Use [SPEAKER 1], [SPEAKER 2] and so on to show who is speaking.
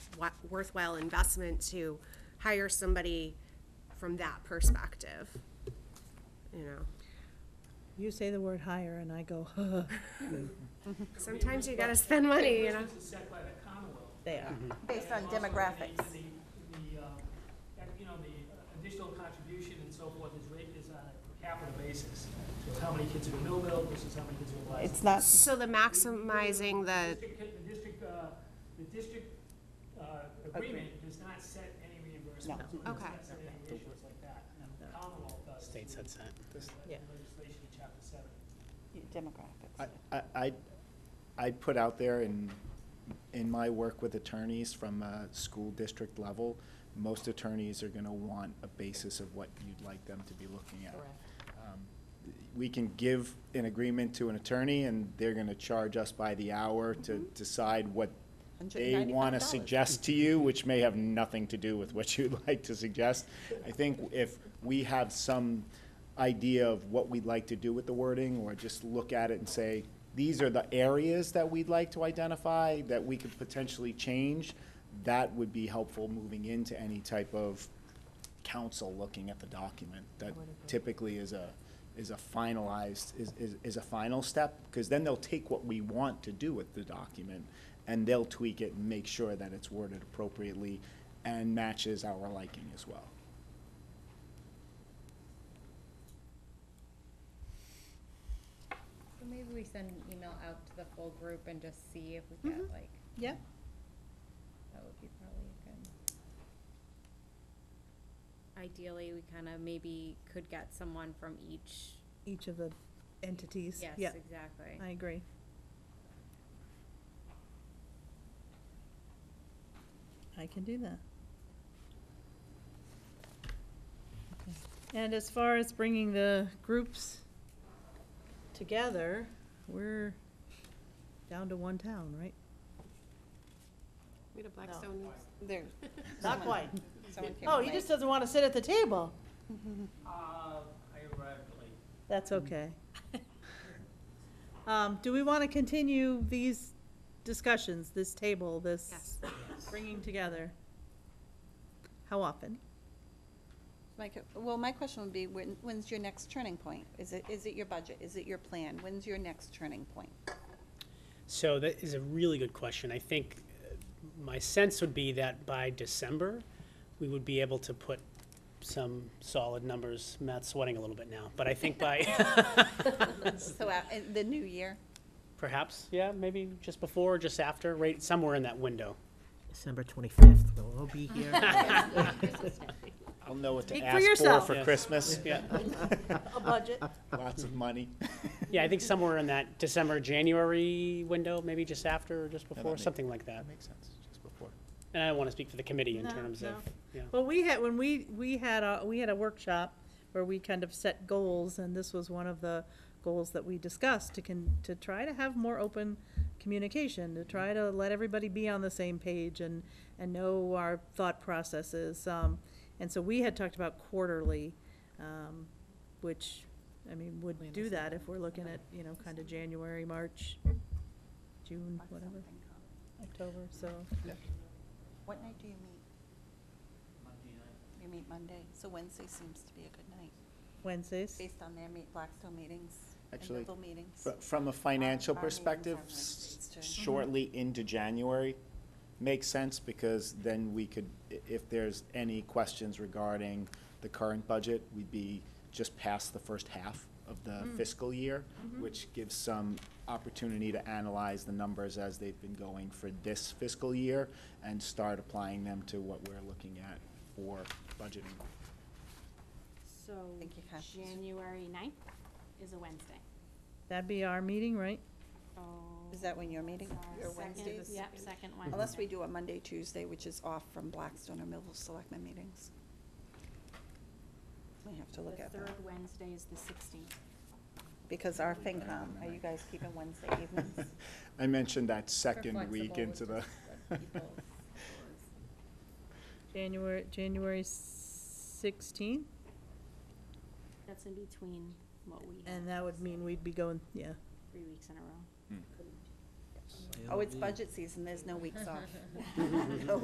[SPEAKER 1] worthwhile, worthwhile investment to hire somebody from that perspective. You know,
[SPEAKER 2] You say the word hire and I go, huh,
[SPEAKER 1] sometimes you gotta spend money, you know?
[SPEAKER 3] This is set by the Commonwealth.
[SPEAKER 2] they are.
[SPEAKER 4] based on
[SPEAKER 3] And also the-
[SPEAKER 4] demographics.
[SPEAKER 3] The, the, uh, and, you know, the additional contribution and so forth is rate is on a per capita basis. So how many kids are in Millville versus how many kids are in Leisler.
[SPEAKER 4] It's uh, not,
[SPEAKER 1] So the maximizing the,
[SPEAKER 3] district- The district, uh, the district, uh, agreement does not set any reimbursement. It does
[SPEAKER 1] Okay.
[SPEAKER 3] not set any ratios like that. The Commonwealth does.
[SPEAKER 5] State
[SPEAKER 3] through
[SPEAKER 5] sets that.
[SPEAKER 2] Yeah.
[SPEAKER 3] Legislation in chapter seven.
[SPEAKER 4] demographics.
[SPEAKER 6] I- I, I'd- I'd put out there in, in my work with attorneys from a school district level, most attorneys are gonna want a basis of what you'd like them to be looking at. Um, We can give an agreement to an attorney and they're gonna charge us by the hour to decide what they wanna
[SPEAKER 4] $195.
[SPEAKER 6] suggest to you, which may have nothing to do with what you'd like to suggest. I think if we have some idea of what we'd like to do with the wording, or just look at it and say, these are the areas that we'd like to identify that we could potentially change, that would be helpful moving into any type of council looking at the document. That typically is a, is a finalized, is, is, is a final step, because then they'll take what we want to do with the document, and they'll tweak it and make sure that it's worded appropriately and matches our liking as well.
[SPEAKER 7] So Maybe we send an email out to the full group and just see if we get
[SPEAKER 2] Mm-hmm.
[SPEAKER 7] like,
[SPEAKER 2] Yep,
[SPEAKER 7] that would be probably a good. Ideally, we kind of maybe could get someone from each,
[SPEAKER 2] each of the entities,
[SPEAKER 7] yes,
[SPEAKER 2] yeah,
[SPEAKER 7] exactly.
[SPEAKER 2] I agree. I can do that. Okay. And as far as bringing the groups together, we're down to one town, right?
[SPEAKER 1] We had a Blackstone there.
[SPEAKER 2] Not quite.
[SPEAKER 4] Someone came
[SPEAKER 2] Oh,
[SPEAKER 4] in
[SPEAKER 2] he
[SPEAKER 4] late.
[SPEAKER 2] just doesn't want to sit at the table.
[SPEAKER 3] Uh, I arrived late.
[SPEAKER 2] That's okay. Um, do we want to continue these discussions, this table, this
[SPEAKER 1] Yes.
[SPEAKER 2] bringing together? How often?
[SPEAKER 4] Like, well, my question would be, when, when's your next turning point? Is it, is it your budget? Is it your plan? When's your next turning point?
[SPEAKER 5] So that is a really good question. I think uh, my sense would be that by December, we would be able to put some solid numbers. Matt's sweating a little bit now, but I think by,
[SPEAKER 4] So, uh, in the new year?
[SPEAKER 5] perhaps, yeah, maybe just before, or just after, right, somewhere in that window.
[SPEAKER 8] December 25th, we'll all be here.
[SPEAKER 6] I'll know what to
[SPEAKER 2] Speak for
[SPEAKER 6] ask for
[SPEAKER 2] yourself.
[SPEAKER 6] for
[SPEAKER 5] Yes.
[SPEAKER 6] Christmas,
[SPEAKER 5] Yeah,
[SPEAKER 2] A budget.
[SPEAKER 6] lots of money.
[SPEAKER 5] yeah, I think somewhere in that December, January window, maybe just after or just
[SPEAKER 6] that
[SPEAKER 5] before,
[SPEAKER 6] makes-
[SPEAKER 5] something like that.
[SPEAKER 6] That makes sense, just before.
[SPEAKER 5] And I don't want to speak for the committee in
[SPEAKER 2] No,
[SPEAKER 5] terms of,
[SPEAKER 2] no.
[SPEAKER 5] yeah.
[SPEAKER 2] Well, we had, when we, we had a, we had a workshop where we kind of set goals, and this was one of the goals that we discussed, to can, to try to have more open communication, to try to let everybody be on the same page and, and know our thought processes. Um, and so we had talked about quarterly, um, which, I mean, would do that if we're looking at, you know, kind of January, March, June, whatever, October, so.
[SPEAKER 4] What night do you meet? You meet Monday, so Wednesday seems to be a good night,
[SPEAKER 2] Wednesdays?
[SPEAKER 4] based on their meet, Blackstone meetings and
[SPEAKER 6] Actually,
[SPEAKER 4] Millville meetings.
[SPEAKER 6] Fr- From a financial
[SPEAKER 4] Our meetings are
[SPEAKER 6] perspective,
[SPEAKER 4] Wednesdays,
[SPEAKER 6] s-
[SPEAKER 4] too.
[SPEAKER 7] Mm-hmm.
[SPEAKER 6] shortly into January makes sense because then we could, i- if there's any questions regarding the current budget, we'd be just past the first half of the
[SPEAKER 7] Mm.
[SPEAKER 6] fiscal year,
[SPEAKER 7] Mm-hmm.
[SPEAKER 6] which gives some opportunity to analyze the numbers as they've been going for this fiscal year and start applying them to what we're looking at for budgeting.
[SPEAKER 9] So,
[SPEAKER 4] Thank you, Kat.
[SPEAKER 9] January ninth is a Wednesday.
[SPEAKER 2] That'd be our meeting, right?
[SPEAKER 9] So
[SPEAKER 4] Is that when you're meeting?
[SPEAKER 9] that's our
[SPEAKER 4] Your Wednesdays?
[SPEAKER 9] second- Yep, second Wednesday.
[SPEAKER 4] Unless we do a Monday, Tuesday, which is off from Blackstone or Millville Selectmen meetings. We have to look
[SPEAKER 9] The
[SPEAKER 4] at that,
[SPEAKER 9] third Wednesday is the sixteenth.
[SPEAKER 4] because our FinCom, are you guys keeping Wednesday evenings?
[SPEAKER 6] I mentioned that
[SPEAKER 7] We're
[SPEAKER 6] second week
[SPEAKER 7] flexible
[SPEAKER 6] into
[SPEAKER 7] with
[SPEAKER 6] the.
[SPEAKER 7] just what people's schedule is.
[SPEAKER 2] January, January sixteenth,
[SPEAKER 9] That's in between what we had
[SPEAKER 2] and that would mean we'd be going, yeah.
[SPEAKER 9] three weeks in a row.
[SPEAKER 4] Oh, it's budget season, there's no weeks off.